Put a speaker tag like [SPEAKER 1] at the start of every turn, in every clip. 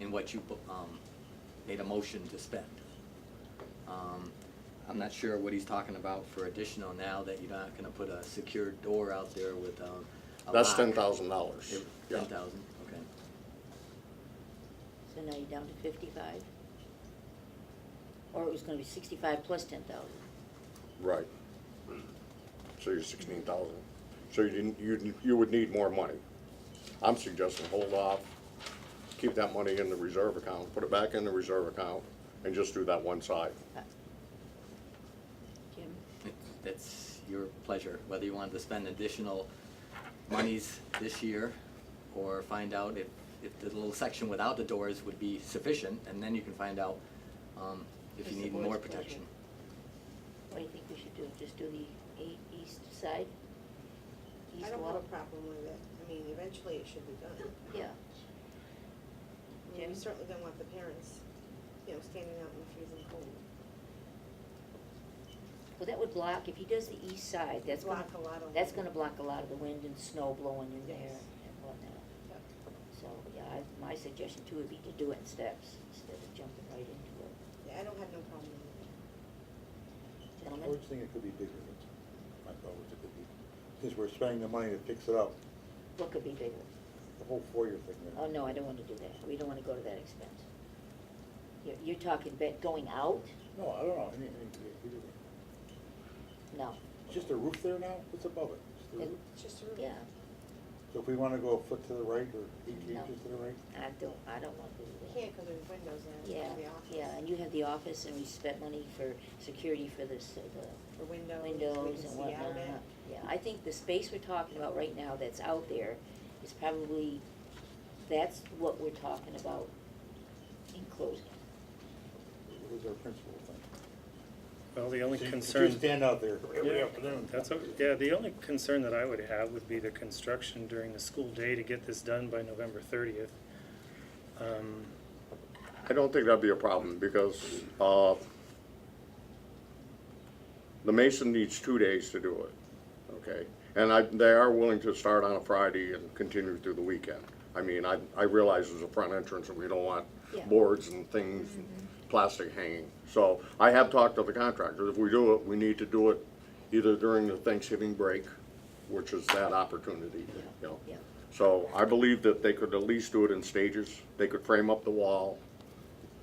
[SPEAKER 1] in what you, um, made a motion to spend. Um, I'm not sure what he's talking about for additional now that you're not gonna put a secured door out there with, um, a
[SPEAKER 2] That's
[SPEAKER 1] lock.
[SPEAKER 2] ten thousand dollars. Yeah,
[SPEAKER 1] Ten thousand, okay.
[SPEAKER 3] So now you're down to fifty-five? Or it was gonna be sixty-five plus ten thousand?
[SPEAKER 2] right. So you're sixteen thousand. So you didn't, you, you would need more money. I'm suggesting hold off, keep that money in the reserve account, put it back in the reserve account, and just do that one side.
[SPEAKER 3] Uh, Jim?
[SPEAKER 1] It's- It's your pleasure, whether you want to spend additional monies this year or find out if, if the little section without the doors would be sufficient, and then you can find out, um, if
[SPEAKER 3] It's
[SPEAKER 1] you
[SPEAKER 3] the
[SPEAKER 1] need more
[SPEAKER 3] board's pleasure.
[SPEAKER 1] protection.
[SPEAKER 3] What do you think we should do? Just do the eight east side?
[SPEAKER 4] I
[SPEAKER 3] East
[SPEAKER 4] don't have
[SPEAKER 3] wall?
[SPEAKER 4] a problem with it. I mean, eventually it should be done. I
[SPEAKER 3] Yeah,
[SPEAKER 4] mean,
[SPEAKER 3] Yeah.
[SPEAKER 4] you certainly don't want the parents, you know, standing out in the freezing cold.
[SPEAKER 3] well, that would block, if he does the east side, that's gonna.
[SPEAKER 4] Block a lot of
[SPEAKER 3] That's
[SPEAKER 4] wind.
[SPEAKER 3] gonna block a lot of the wind and snow blowing in there
[SPEAKER 4] Yes.
[SPEAKER 3] and whatnot. So, yeah, I, my suggestion too would be to do it in steps instead of jumping right into it.
[SPEAKER 4] Yeah, I don't have no problem with
[SPEAKER 3] Gentlemen?
[SPEAKER 5] George think it could be bigger, but my thought was it could be, since we're spending the money to fix it up,
[SPEAKER 3] What could be bigger?
[SPEAKER 5] the whole four-year thing there.
[SPEAKER 3] Oh, no, I don't wanna do that. We don't wanna go to that expense. You're, you're talking about going out?
[SPEAKER 5] No, I don't know, any, any, we did it.
[SPEAKER 3] No.
[SPEAKER 5] It's just a roof there now, what's above it? Just the
[SPEAKER 3] It-
[SPEAKER 5] roof.
[SPEAKER 4] it. Just a roof.
[SPEAKER 3] Yeah,
[SPEAKER 5] So if we wanna go a foot to the right or eighteen
[SPEAKER 3] No.
[SPEAKER 5] inches to the right,
[SPEAKER 3] I don't, I don't wanna do
[SPEAKER 4] You
[SPEAKER 3] that.
[SPEAKER 4] can't because there's windows in it,
[SPEAKER 3] Yeah,
[SPEAKER 4] in the office.
[SPEAKER 3] yeah, and you have the office and we spent money for security for this, uh,
[SPEAKER 4] For
[SPEAKER 3] the
[SPEAKER 4] windows, we
[SPEAKER 3] windows
[SPEAKER 4] can
[SPEAKER 3] and
[SPEAKER 4] see out
[SPEAKER 3] whatnot.
[SPEAKER 4] at.
[SPEAKER 3] Yeah, I think the space we're talking about right now that's out there is probably, that's what we're talking about enclosing.
[SPEAKER 5] what was our principal thing?
[SPEAKER 6] Well, the only
[SPEAKER 5] So you could
[SPEAKER 6] concern.
[SPEAKER 5] just stand out there every
[SPEAKER 6] Yeah,
[SPEAKER 5] afternoon.
[SPEAKER 6] That's, o- yeah, the only concern that I would have would be the construction during the school day to get this done by November thirtieth. Um,
[SPEAKER 2] I don't think that'd be a problem, because, uh, the mason needs two days to do it, okay? And I, they are willing to start on a Friday and continue through the weekend. I mean, I, I realize there's a front entrance and we don't want
[SPEAKER 3] Yeah. Mm-hmm.
[SPEAKER 2] boards and things, and plastic hanging. So I have talked to the contractor, if we do it, we need to do it either during the Thanksgiving break, which is that opportunity, you know?
[SPEAKER 3] Yeah.
[SPEAKER 2] So I believe that they could at least do it in stages. They could frame up the wall,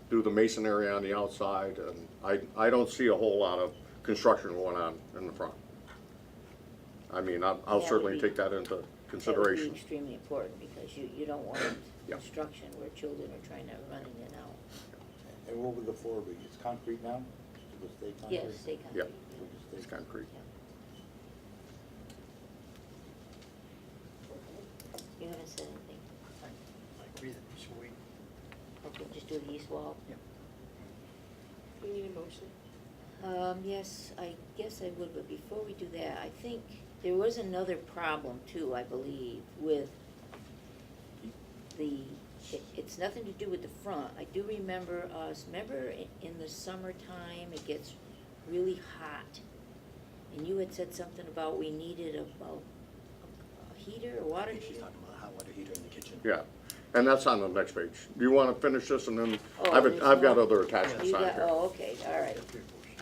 [SPEAKER 2] do the masonry on the outside, and I, I don't see a whole lot of construction going on in the front. I mean, I'll-
[SPEAKER 3] That
[SPEAKER 2] I'll
[SPEAKER 3] would
[SPEAKER 2] certainly
[SPEAKER 3] be-
[SPEAKER 2] take that into
[SPEAKER 3] That
[SPEAKER 2] consideration.
[SPEAKER 3] would be extremely important, because you, you don't want
[SPEAKER 2] Yeah.
[SPEAKER 3] construction where children are trying to run in and out.
[SPEAKER 5] And what would the floor be? It's concrete now? It stay concrete?
[SPEAKER 3] Yes, they can.
[SPEAKER 2] Yeah.
[SPEAKER 5] It'll just stay
[SPEAKER 2] It's concrete.
[SPEAKER 3] You haven't said anything.
[SPEAKER 7] I I agree that we should wait.
[SPEAKER 3] Okay, just do the east wall.
[SPEAKER 4] We need a motion.
[SPEAKER 3] Um, yes, I guess I would, but before we do that, I think there was another problem too, I believe, with the, it, it's nothing to do with the front. I do remember us, remember in, in the summertime, it gets really hot. And you had said something about we needed a, a a heater, a
[SPEAKER 1] I
[SPEAKER 3] water
[SPEAKER 1] think she's
[SPEAKER 3] heater?
[SPEAKER 1] talking about a hot water heater in the kitchen.
[SPEAKER 2] Yeah, and that's on the next page. Do you want to finish this and then,
[SPEAKER 3] Oh,
[SPEAKER 2] I've,
[SPEAKER 3] there's
[SPEAKER 2] I've got
[SPEAKER 3] more?
[SPEAKER 2] other attachments
[SPEAKER 3] You
[SPEAKER 2] on
[SPEAKER 3] got-
[SPEAKER 2] here.
[SPEAKER 3] Oh, okay, all right,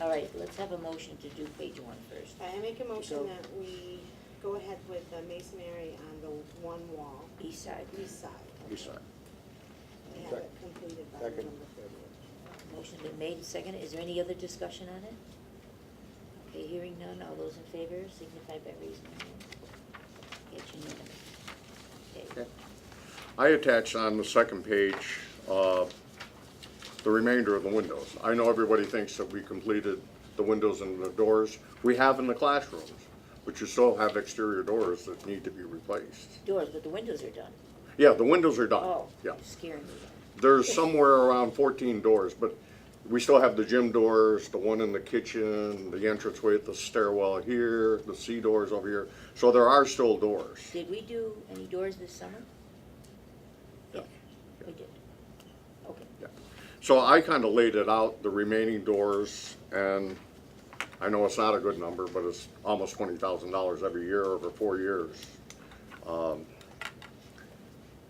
[SPEAKER 3] all right, let's have a motion to do page one first.
[SPEAKER 4] I make a
[SPEAKER 3] So-
[SPEAKER 4] motion that we go ahead with the masonry on the one wall,
[SPEAKER 3] East side.
[SPEAKER 4] east side,
[SPEAKER 2] East side.
[SPEAKER 4] and have it completed by
[SPEAKER 5] Second.
[SPEAKER 4] November
[SPEAKER 3] Motion been made and seconded. Is there any other discussion on it? Okay, hearing none. All those in favor signify by raising your hand. It's unanimous. Okay.
[SPEAKER 2] Okay. I attached on the second page, uh, the remainder of the windows. I know everybody thinks that we completed the windows and the doors. We have in the classrooms, but you still have exterior doors that need to be replaced.
[SPEAKER 3] Doors, but the windows are done.
[SPEAKER 2] Yeah, the windows are done.
[SPEAKER 3] Oh,
[SPEAKER 2] Yeah.
[SPEAKER 3] scaring me.
[SPEAKER 2] There's somewhere around fourteen doors, but we still have the gym doors, the one in the kitchen, the entranceway at the stairwell here, the C doors over here. So there are still doors.
[SPEAKER 3] Did we do any doors this summer? Yeah, we did. Okay.
[SPEAKER 2] Yeah. So I kind of laid it out, the remaining doors, and I know it's not a good number, but it's almost twenty thousand dollars every year over four years. Um,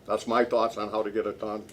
[SPEAKER 2] That's my thoughts on how to get it done.